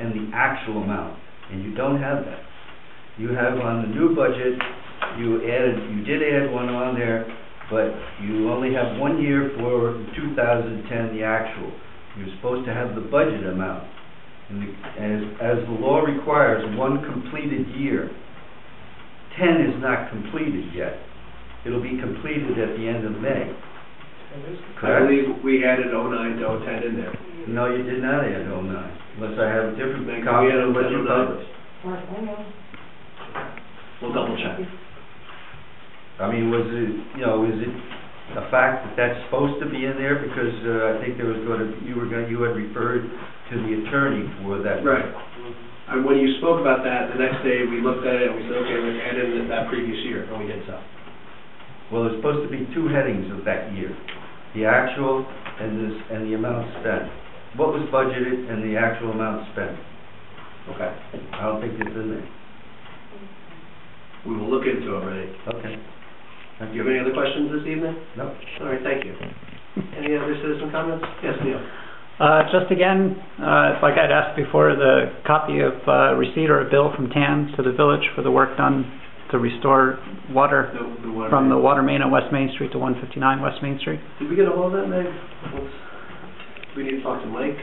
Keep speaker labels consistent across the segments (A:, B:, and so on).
A: in the actual amount, and you don't have that. You have on the new budget, you added, you did add one on there, but you only have one year for two thousand ten, the actual. You're supposed to have the budget amount, and the- as, as the law requires, one completed year. Ten is not completed yet. It'll be completed at the end of May,
B: I
A: correct?
B: believe we added oh nine to oh ten in there.
A: No, you did not add oh nine, unless I have a different
B: Maybe we
A: copy
B: added
A: of what you
B: 09.
A: published.
C: Mark, hang on.
B: We'll double check.
A: I mean, was it, you know, is it a fact that that's supposed to be in there? Because uh, I think there was going to, you were going, you had referred to the attorney for that.
B: Right. And when you spoke about that, the next day, we looked at it and we said, okay, let's add in that previous year, and we did so.
A: Oh, Well, there's supposed to be two headings of that year, the actual and this, and the amount spent. What was budgeted and the actual amount spent?
B: Okay.
A: I don't think it's in there.
B: We will look into it, Renee.
A: Okay.
B: Do you have any other questions this evening?
A: No.
B: All right, thank you. Any other citizen comments? Yes, Neil?
D: Uh, Just again, uh, like I'd asked before, the copy of uh, receipt or a bill from TAN to the village for the work done to restore water
B: The- the one-
D: from the water main on West Main Street to 159 West Main Street.
B: Did we get a hold of that, Meg? Let's- We need to talk to Mike?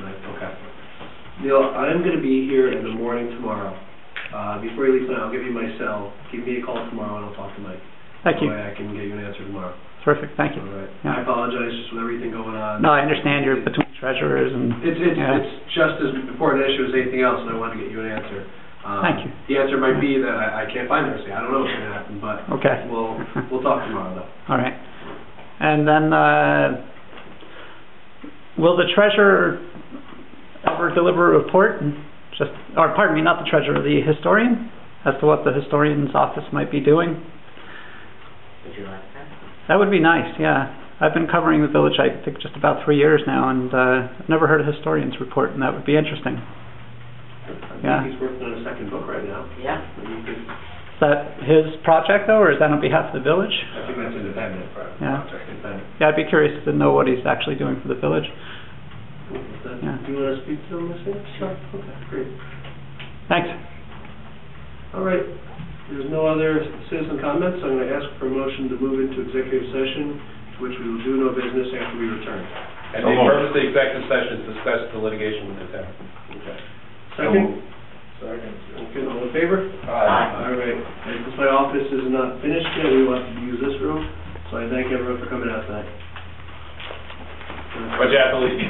B: Mike, okay. Neil, I'm gonna be here in the morning tomorrow. Uh, before you leave tonight, I'll give you my cell. Give me a call tomorrow and I'll talk to Mike.
D: Thank
B: That
D: you.
B: way I can get you an answer tomorrow.
D: Terrific. Thank
B: All
D: you.
B: right.
D: Yeah.
B: I apologize just with everything going on.
D: No, I understand you're between treasurers and,
B: It's, it's,
D: Yeah.
B: it's just as important an issue as anything else, and I wanted to get you an answer. Um,
D: Thank you.
B: The answer might be that I, I can't find Thursday, I don't know what's gonna happen, but
D: okay.
B: we'll, we'll talk tomorrow though.
D: All right. And then, uh, will the treasurer ever deliver a report? Just, or pardon me, not the treasurer, the historian, as to what the historian's office might be doing?
C: Would you like that?
D: That would be nice, yeah. I've been covering the village, I think, just about three years now, and uh, I've never heard a historian's report, and that would be interesting.
B: I
D: Yeah.
B: think he's working on a second book right now.
C: Yeah.
B: But you could-
D: Is that his project, though, or is that on behalf of the village?
B: I think that's independent, right?
D: Yeah.
B: Independent.
D: Yeah, I'd be curious to know what he's actually doing for the village. Yeah.
B: Do you wanna speak to them this week? Sure. Okay, great.
D: Thanks.
B: All right, there's no other citizen comments, I'm gonna ask for a motion to move into executive session, to which we will do no business after we return.
E: And the purpose of the executive session is to discuss the litigation with the town.
B: Second?
E: Second.
B: Okay, all in favor?
C: Aye.
E: uh,
B: All right, and since my office is not finished yet, we want to use this room, so I thank everyone for coming out tonight.
E: But you have to leave.